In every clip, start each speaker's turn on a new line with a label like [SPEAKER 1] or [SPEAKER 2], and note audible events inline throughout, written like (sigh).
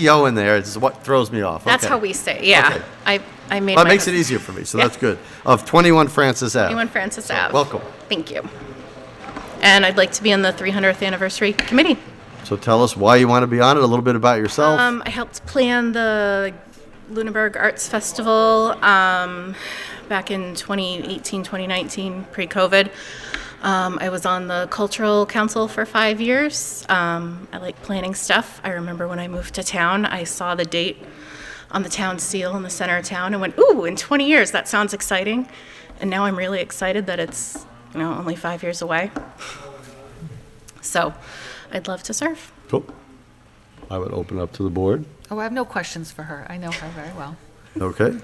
[SPEAKER 1] yo E in there is what throws me off.
[SPEAKER 2] That's
[SPEAKER 1] Okay.
[SPEAKER 2] how we say, yeah.
[SPEAKER 1] Okay.
[SPEAKER 2] I, I made my.
[SPEAKER 1] Well, it makes it easier for me, so
[SPEAKER 2] Yeah.
[SPEAKER 1] that's good. Of 21 Francis Ave.
[SPEAKER 2] Anyone Francis Ave.
[SPEAKER 1] welcome.
[SPEAKER 2] Thank you. And I'd like to be on the 300th Anniversary Committee.
[SPEAKER 1] So tell us why you want to be on it, a little bit about yourself.
[SPEAKER 2] Um, I helped plan the Lunenburg Arts Festival um, back in 2018, 2019, pre COVID. Um, I was on the Cultural Council for five years. Um, I like planning stuff. I remember when I moved to town, I saw the date on the town seal in the center of town and went, ooh, in 20 years, that sounds exciting. And now I'm really excited that it's, you know, only five years away. So I'd love to serve.
[SPEAKER 1] cool. I would open up to the board.
[SPEAKER 3] Oh, I have no questions for her. I know her very well.
[SPEAKER 1] Okay.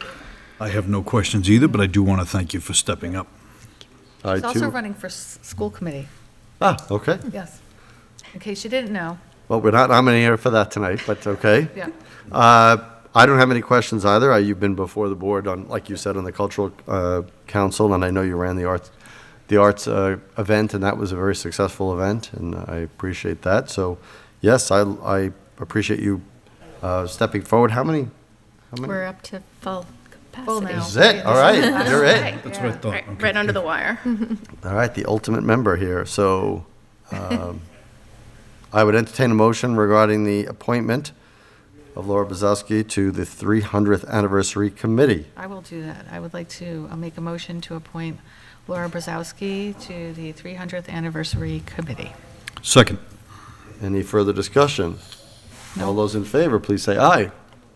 [SPEAKER 4] I have no questions either, but I do want to thank you for stepping up.
[SPEAKER 1] I
[SPEAKER 3] She's
[SPEAKER 1] too.
[SPEAKER 3] also running for s- school committee,
[SPEAKER 1] ah, okay.
[SPEAKER 3] yes. In case you didn't know,
[SPEAKER 1] Well, we're not nominating her for that tonight, but okay.
[SPEAKER 3] yeah.
[SPEAKER 1] Uh, I don't have any questions either. Uh, You've been before the board on, like you said, on the Cultural uh, Council, and I know you ran the arts, the arts uh, event, and that was a very successful event, and I appreciate that. So, yes, I, I appreciate you uh, stepping forward. How many? How many?
[SPEAKER 2] We're up to full capacity.
[SPEAKER 3] Full now.
[SPEAKER 1] This is it. All right, you're it.
[SPEAKER 4] That's what I thought.
[SPEAKER 2] Right, right under the wire.
[SPEAKER 1] All right, the ultimate member here. So um, (laughs) I would entertain a motion regarding the appointment of Laura Bozowski to the 300th Anniversary Committee.
[SPEAKER 3] I will do that. I would like to uh, make a motion to appoint Laura Brzezowski to the 300th Anniversary Committee.
[SPEAKER 4] Second.
[SPEAKER 1] Any further discussion?
[SPEAKER 3] No.
[SPEAKER 1] All those in favor, please say aye.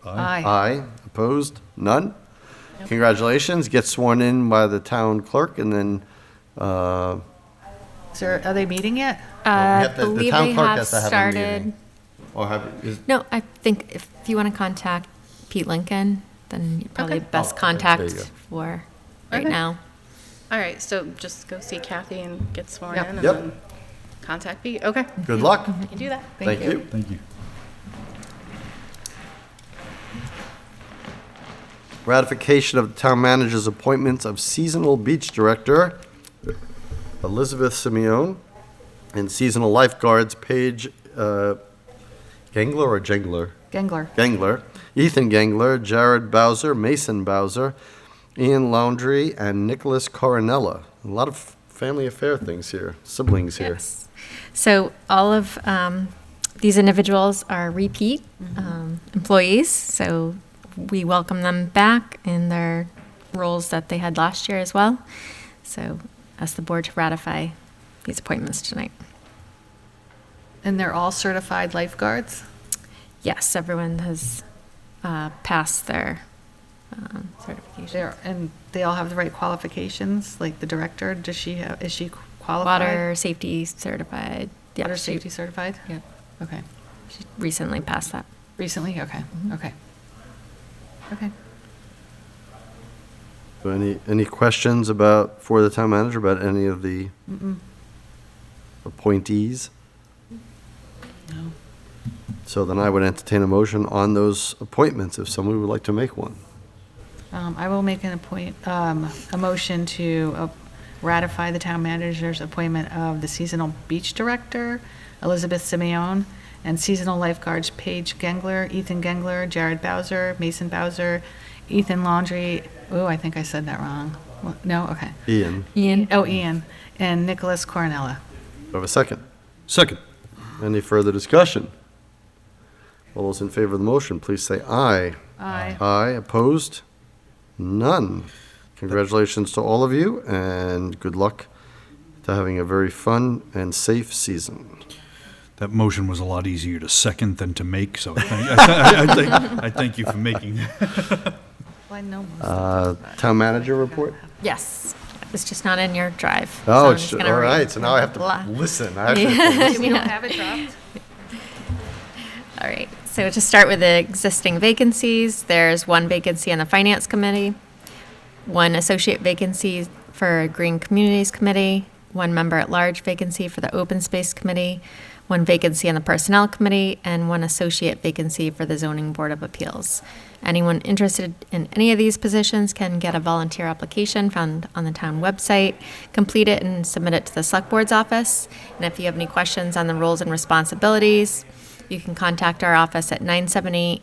[SPEAKER 3] Aye.
[SPEAKER 1] Aye. Opposed? None? Congratulations. Get sworn in by the town clerk and then, uh,
[SPEAKER 3] Is there, are they meeting yet?
[SPEAKER 1] we
[SPEAKER 5] Uh,
[SPEAKER 1] have to- the
[SPEAKER 5] believe
[SPEAKER 1] town
[SPEAKER 5] they
[SPEAKER 1] clerk
[SPEAKER 5] have
[SPEAKER 1] has to have a
[SPEAKER 5] started.
[SPEAKER 1] meeting. Or have, is-
[SPEAKER 5] No, I think if you want to contact Pete Lincoln, then you're probably
[SPEAKER 2] Okay.
[SPEAKER 5] best
[SPEAKER 1] Oh, okay, there you
[SPEAKER 5] contact
[SPEAKER 1] go.
[SPEAKER 5] for right
[SPEAKER 2] Okay.
[SPEAKER 5] now.
[SPEAKER 2] All right, so just go see Kathy and get sworn
[SPEAKER 3] Yep.
[SPEAKER 2] in and
[SPEAKER 1] Yep.
[SPEAKER 2] then contact me. Okay, you
[SPEAKER 1] good luck.
[SPEAKER 2] can do that.
[SPEAKER 1] Thank you.
[SPEAKER 4] Thank you.
[SPEAKER 1] Ratification of the town manager's appointments of seasonal beach director Elizabeth Simeon and seasonal lifeguards Paige uh, Gangler or Jengler?
[SPEAKER 3] Gengler.
[SPEAKER 1] Gangler, Ethan Gangler, Jared Bowser, Mason Bowser, Ian Laundry, and Nicholas Coronella. A lot of family affair things here, siblings here.
[SPEAKER 5] Yes. So all of um, these individuals are repeat
[SPEAKER 2] Mm-hmm.
[SPEAKER 5] um, employees, so we welcome them back in their roles that they had last year as well. So ask the board to ratify these appointments tonight.
[SPEAKER 3] And they're all certified lifeguards?
[SPEAKER 5] Yes, everyone has uh, passed their um, certification.
[SPEAKER 3] They're, and they all have the right qualifications, like the director, does she have, is she qualified?
[SPEAKER 5] Water safety certified. Yeah,
[SPEAKER 3] Water
[SPEAKER 5] she-
[SPEAKER 3] safety certified?
[SPEAKER 5] Yeah,
[SPEAKER 3] Okay.
[SPEAKER 5] she recently passed that.
[SPEAKER 3] Recently? Okay, okay. Okay.
[SPEAKER 1] So any, any questions about, for the town manager, about any of the appointees?
[SPEAKER 3] No.
[SPEAKER 1] So then I would entertain a motion on those appointments if somebody would like to make one.
[SPEAKER 3] Um, I will make an appoint, um, a motion to uh, ratify the town manager's appointment of the seasonal beach director, Elizabeth Simeon, and seasonal lifeguards Paige Gengler, Ethan Gengler, Jared Bowser, Mason Bowser, Ethan Laundry, ooh, I think I said that wrong. What- No, okay.
[SPEAKER 1] Ian,
[SPEAKER 5] Ian?
[SPEAKER 3] Oh, Ian, and Nicholas Cornella.
[SPEAKER 1] do I have a second?
[SPEAKER 4] Second.
[SPEAKER 1] Any further discussion? All those in favor of the motion, please say aye.
[SPEAKER 3] Aye.
[SPEAKER 1] Aye, opposed? None. Congratulations to all of you, and good luck to having a very fun and safe season.
[SPEAKER 4] That motion was a lot easier to second than to make, so I thank- (laughs) I I thank, I thank you for making that.
[SPEAKER 3] Well, I know most
[SPEAKER 1] Uh,
[SPEAKER 3] of them, but-
[SPEAKER 1] Town manager report?
[SPEAKER 5] Yes. It's just not in your drive. so
[SPEAKER 1] Oh,
[SPEAKER 5] I'm
[SPEAKER 1] it's,
[SPEAKER 5] just
[SPEAKER 1] all
[SPEAKER 5] gonna read
[SPEAKER 1] right, so now I have
[SPEAKER 5] blah.
[SPEAKER 1] to listen. I
[SPEAKER 5] (laughs)
[SPEAKER 1] actually have to
[SPEAKER 3] (laughs) We don't have it dropped?
[SPEAKER 5] All right, so to start with the existing vacancies, there's one vacancy on the Finance Committee, one associate vacancy for Green Communities Committee, one member-at-large vacancy for the Open Space Committee, one vacancy on the Personnel Committee, and one associate vacancy for the Zoning Board of Appeals. Anyone interested in any of these positions can get a volunteer application found on the town website, complete it and submit it to the Select Board's office. And if you have any questions on the roles and responsibilities, You can contact our office at 978